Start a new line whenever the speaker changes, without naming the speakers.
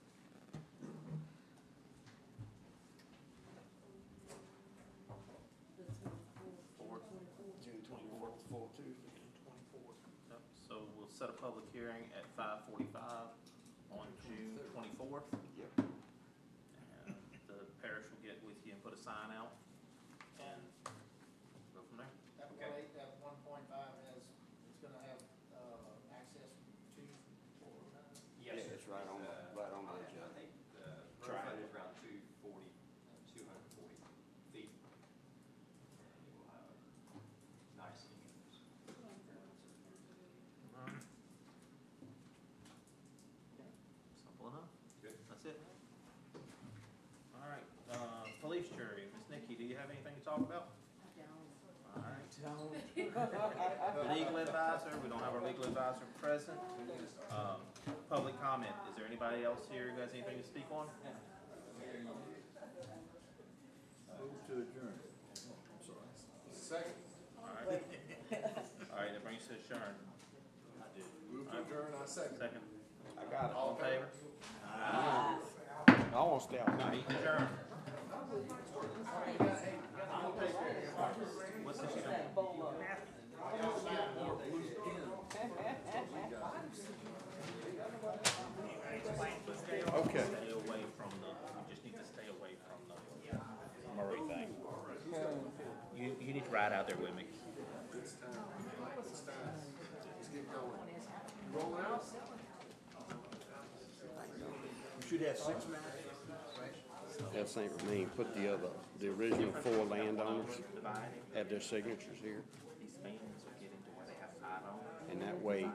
set a public hearing at five forty-five on June twenty-fourth.
Yep.
And the parish will get with you and put a sign out and go from there.
That one
Okay.
eight, that one point five has, it's gonna have, uh, access to, or, uh,
Yes, Yeah, it's right on the- right on the edge of it.
I think the road
Triangle.
frontage is around two forty, two hundred and forty feet. And It will have a nice image.
Alright. Simple enough.
Good.
That's it. Alright, uh, police jury, Miss Nikki, do you have anything to talk about? Alright. Legal advisor, we don't have our legal advisor present. Um, Public comment, is there anybody else here who has anything to speak on?
Move to adjourn.
Second.
Alright, Alright, that brings us to adjourn.
Move to adjourn, I second.
Second,
I got it.
all in favor?
I almost doubted.
Adjourn. What's this?
Okay.
Stay away from the, we just need to stay away from the Murray thing. You, you need to ride out there with me.
It's time. It's time. Let's get going. Rolling out? You should have six
That's St. Remain, put the other, the original four landowners
Dividing,
have their signatures here,
these fans are getting to where they have five owners.
and that way